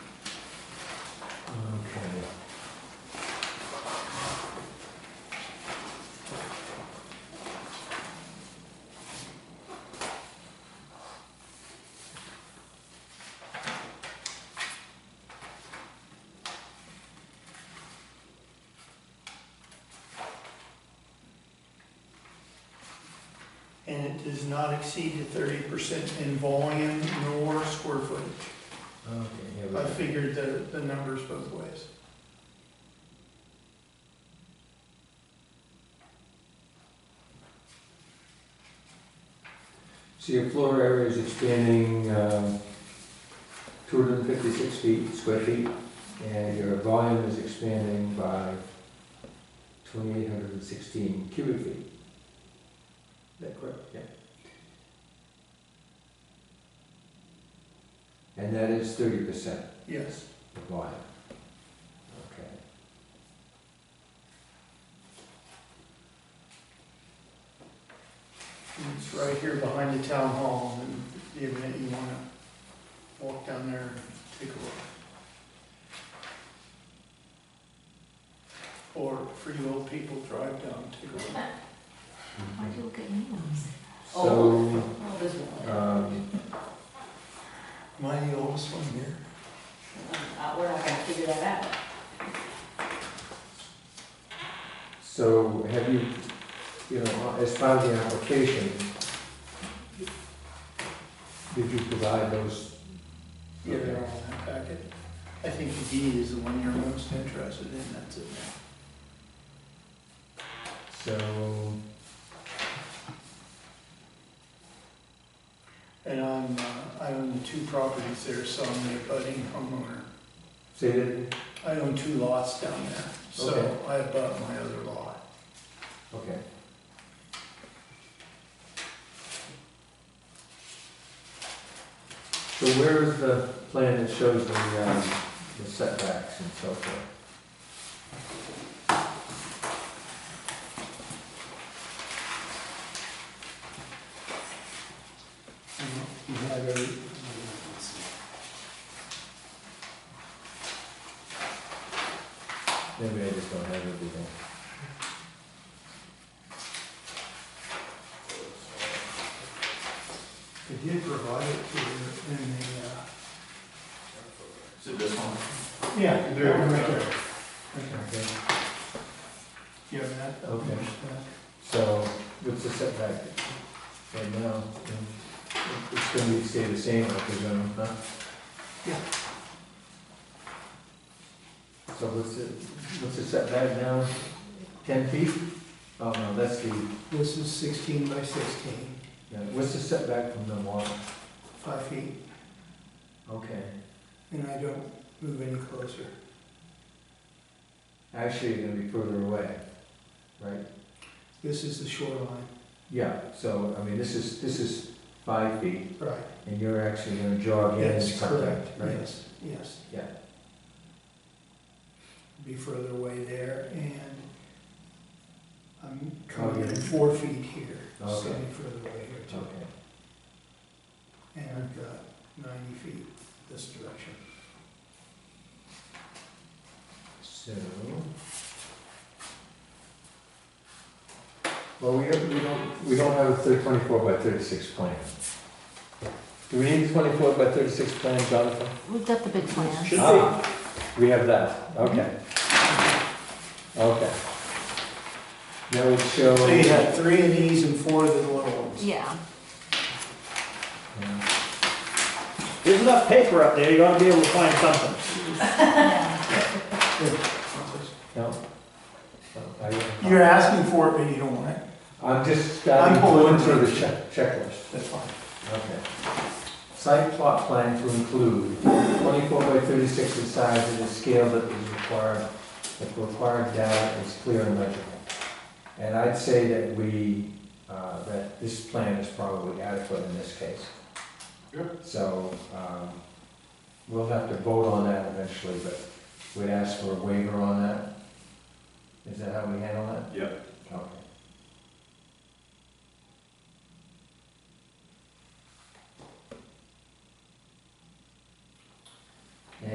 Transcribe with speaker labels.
Speaker 1: and it does not exceed the thirty percent in volume nor square footage.
Speaker 2: Okay, here we
Speaker 1: I
Speaker 2: go.
Speaker 1: figured the, the numbers both ways.
Speaker 2: So your floor area is expanding um, 256 feet, square feet, and your volume is expanding by 2,816 cubic feet. Is that correct? Yeah. And that is 30%
Speaker 1: Yes,
Speaker 2: of volume. Okay.
Speaker 1: And it's right here behind the town hall, and if you have- you wanna walk down there and take a look. Or for you old people, drive down, take a look.
Speaker 3: Why do you look at me when you say
Speaker 2: So,
Speaker 3: that? Oh, this one.
Speaker 2: um,
Speaker 1: Am I the oldest one here?
Speaker 3: Uh, We're not gonna figure that out.
Speaker 2: so have you, you know, as part of the application, did you provide those
Speaker 1: Yeah, they're all in that packet. I think the D is the one you're most interested in, that's it now.
Speaker 2: So,
Speaker 1: And I'm, uh, I own the two properties there, so I'm the budding homeowner.
Speaker 2: say that,
Speaker 1: I own two lots down there, so
Speaker 2: Okay.
Speaker 1: I abut my other lot.
Speaker 2: okay. So where is the plan that shows the, um, the setbacks and so forth?
Speaker 1: You have every-
Speaker 2: Maybe I just don't have everything.
Speaker 1: They did provide it to you in the, uh,
Speaker 4: Is it this one?
Speaker 1: yeah,
Speaker 4: There.
Speaker 1: right there. Right there.
Speaker 2: Okay.
Speaker 1: You have that?
Speaker 2: Okay. So, what's the setback right now? It's gonna be, stay the same, I presume, huh?
Speaker 1: Yeah.
Speaker 2: So what's the, what's the setback now? Ten feet? Oh, no, that's the,
Speaker 1: This is sixteen by sixteen,
Speaker 2: yeah, what's the setback from the wall?
Speaker 1: five feet,
Speaker 2: Okay.
Speaker 1: and I don't move any closer.
Speaker 2: Actually, you're gonna be further away, right?
Speaker 1: This is the shoreline.
Speaker 2: Yeah, so, I mean, this is, this is five feet,
Speaker 1: Right.
Speaker 2: and you're actually gonna jog in and
Speaker 1: Yes,
Speaker 2: cut that,
Speaker 1: correct,
Speaker 2: right?
Speaker 1: yes, yes.
Speaker 2: Yeah.
Speaker 1: Be further away there, and I'm coming
Speaker 2: Okay.
Speaker 1: in four feet here, so
Speaker 2: Okay.
Speaker 1: be further away here too.
Speaker 2: Okay.
Speaker 1: And I've got ninety feet this direction.
Speaker 2: So. Well, we don't, we don't, we don't have a thir- twenty-four by thirty-six plan. Do we need a twenty-four by thirty-six plan, Jonathan?
Speaker 3: We've got the big plans.
Speaker 2: Ah, We have that, okay. Okay. That would show.
Speaker 1: So you have three of these and four of the little ones.
Speaker 3: Yeah.
Speaker 2: Yeah.
Speaker 5: There's enough paper up there, you're gonna be able to find something.
Speaker 2: No? No, I-
Speaker 1: You're asking for it, but you don't want it,
Speaker 2: I'm just,
Speaker 1: I'm
Speaker 2: I'm going
Speaker 1: pulling
Speaker 2: through the
Speaker 1: through.
Speaker 2: check, checklist.
Speaker 1: that's fine.
Speaker 2: Okay. Site plot plan to include twenty-four by thirty-six in size and the scale that is required, that required data is clear and legible. And I'd say that we, uh, that this plan is probably adequate in this case.
Speaker 4: Yep.
Speaker 2: So, um, we'll have to vote on that eventually, but we'd ask for a waiver on that. Is that how we handle that?
Speaker 4: Yep.
Speaker 2: Okay.